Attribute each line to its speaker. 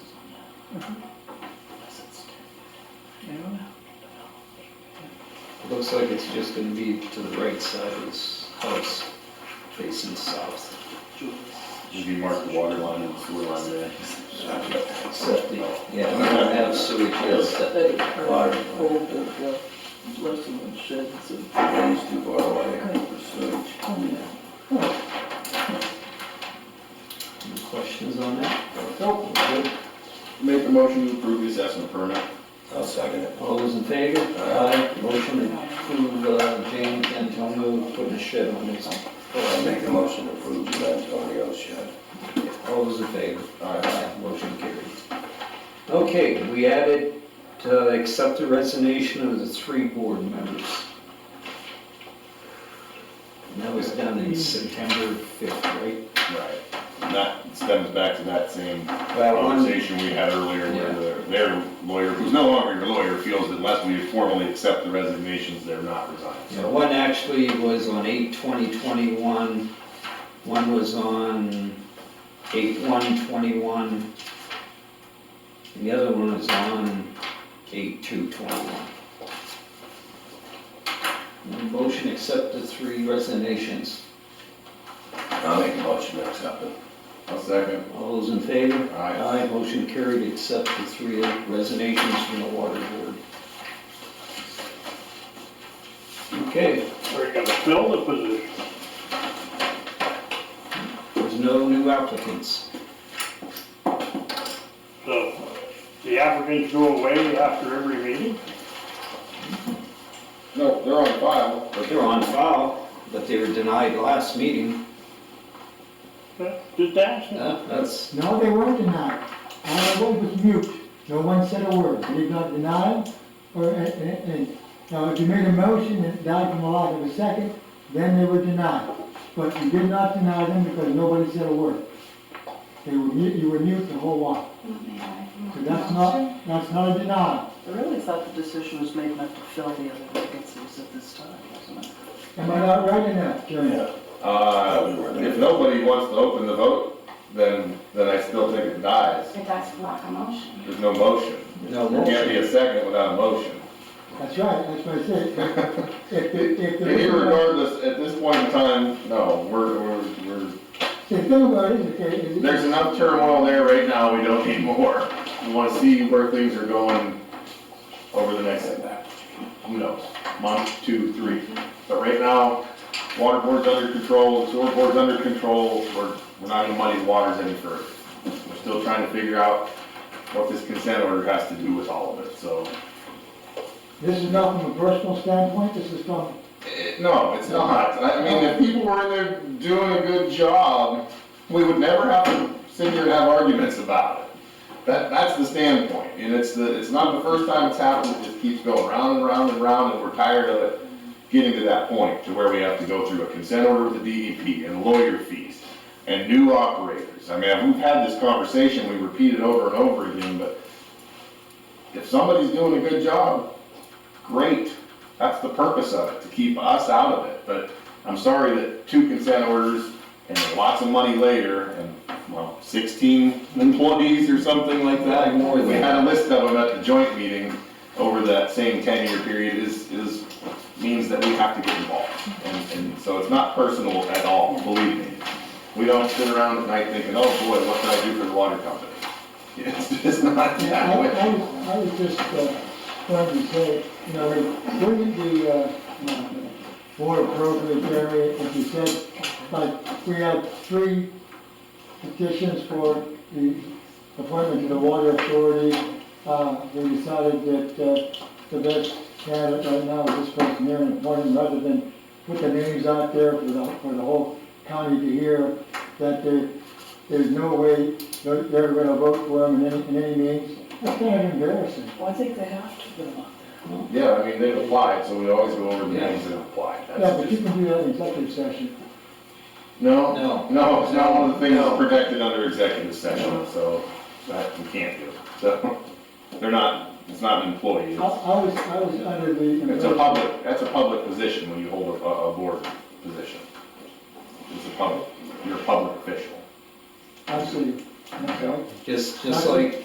Speaker 1: Unless it's
Speaker 2: Yeah.
Speaker 3: It looks like it's just gonna be to the right side of this house, facing south.
Speaker 4: If you mark the water line and sewer line there.
Speaker 3: Septic, yeah, we don't have sewage, we have septic.
Speaker 2: They are
Speaker 5: Water.
Speaker 2: old, uh, less than sheds and,
Speaker 5: It's too far away for sewage.
Speaker 2: oh,
Speaker 3: Any Questions on that?
Speaker 4: Nope. Make a motion to approve the assessment permit.
Speaker 5: I'll second it.
Speaker 3: All those in favor? Aye. Motion to approve, uh, James Antonio putting a shed on his,
Speaker 5: I'll make a motion to approve the Antonio shed.
Speaker 3: all those in favor?
Speaker 5: Aye.
Speaker 3: Motion carried. Okay, we added, uh, accept the resignation of the three board members. And that was done in September fifth, right?
Speaker 4: Right. And that stems back to that same
Speaker 3: Well, one-
Speaker 4: conversation we had earlier where their- their lawyer, who's no longer your lawyer, feels that unless we formally accept the resignations, they're not resigned.
Speaker 3: Yeah, one actually was on eight twenty twenty-one, one was on eight one twenty-one, and the other one was on eight two twenty-one. Motion accept the three resignations.
Speaker 5: I'll make a motion to accept it.
Speaker 4: I'll second.
Speaker 3: All those in favor?
Speaker 4: Aye.
Speaker 3: motion carried, accept the three resignations from the water board. Okay,
Speaker 6: We're gonna fill the position.
Speaker 3: there's no new applicants.
Speaker 6: So the applicants go away after every meeting?
Speaker 4: No, they're on file.
Speaker 3: But they're on file, but they were denied last meeting.
Speaker 6: Just ask them.
Speaker 3: Yeah, That's,
Speaker 7: No, they were denied. All it was was mute. No one said a word. They got denied, or, and, and, and, now if you made a motion and it died from a lack of a second, then they were denied. But you did not deny them because nobody said a word. They were mute, you were mute the whole while. So that's not, that's not a denial.
Speaker 2: I really thought the decision was made not to fill the other vacancies at this time, wasn't it?
Speaker 7: Am I not right in that, Jeremy?
Speaker 5: Yeah.
Speaker 4: Uh, if nobody wants to open the vote, then, then I still think it dies.
Speaker 8: It does block a motion.
Speaker 4: There's no motion.
Speaker 3: no
Speaker 4: There can't be
Speaker 3: motion.
Speaker 4: a second without a motion.
Speaker 7: That's right, that's what I said. If, if, if there is a-
Speaker 4: Irregardless, at this point in time, no, we're, we're, we're,
Speaker 7: See, the thing about it is, okay, is.
Speaker 4: there's enough turmoil there right now, we don't need more. We wanna see where things are going over the next, who knows, month, two, three. But right now, water board's under control, sewer board's under control, we're, we're not gonna muddy the waters any further. We're still trying to figure out what this consent order has to do with all of it, so.
Speaker 7: This is not from a personal standpoint, this is from
Speaker 4: Eh, No, it's not. I I mean, if people were in there doing a good job, we would never have to sit here and have arguments about it. That, that's the standpoint, and it's the, it's not the first time it's happened, it just keeps going round and round and round, and we're tired of it getting to that point, to where we have to go through a consent order with the DEP, and lawyer fees, and new operators. I mean, we've had this conversation, we repeat it over and over again, but if somebody's doing a good job, great, that's the purpose of it, to keep us out of it. But I'm sorry that two consent orders and lots of money later and, well, 16 employees or something like that.
Speaker 3: More than-
Speaker 4: We had a list of them at the joint meeting over that same 10-year period is, is, means that we have to get involved. And, and so it's not personal at all, believe me. We don't sit around at night thinking, oh boy, what can I do for the water company? It's, it's not
Speaker 7: Yeah,
Speaker 4: that
Speaker 7: I,
Speaker 4: way.
Speaker 7: I, was- I was just, uh, wanted to say, you know, wouldn't the, uh, uh, more appropriate area, if you said, like, we have three petitions for the appointment to the water authority, uh, we decided that, uh, the best candidate right now is this person here and appoint him rather than put the names out there for the, for the whole county to hear, that there, there's no way they're, they're gonna vote for him in any, in any means. That's kind of embarrassing.
Speaker 2: Well, I think they have to put them up there.
Speaker 4: Yeah, I mean, they've applied, so we always go over the
Speaker 3: Yeah.
Speaker 4: names that have applied.
Speaker 7: Yeah,
Speaker 4: That's
Speaker 7: but you
Speaker 4: just,
Speaker 7: can do that in executive session.
Speaker 4: no,
Speaker 3: No.
Speaker 4: no, it's not one of the things
Speaker 3: No.
Speaker 4: that's protected under executive session, so that we can't do. So, they're not, it's not an employee.
Speaker 7: I,
Speaker 4: It's-
Speaker 7: I was, I was under the
Speaker 4: It's a
Speaker 7: impression,
Speaker 4: public, that's a public position when you hold a, a a board position. It's a public, you're a public official.
Speaker 7: I see, okay.
Speaker 3: Just, just like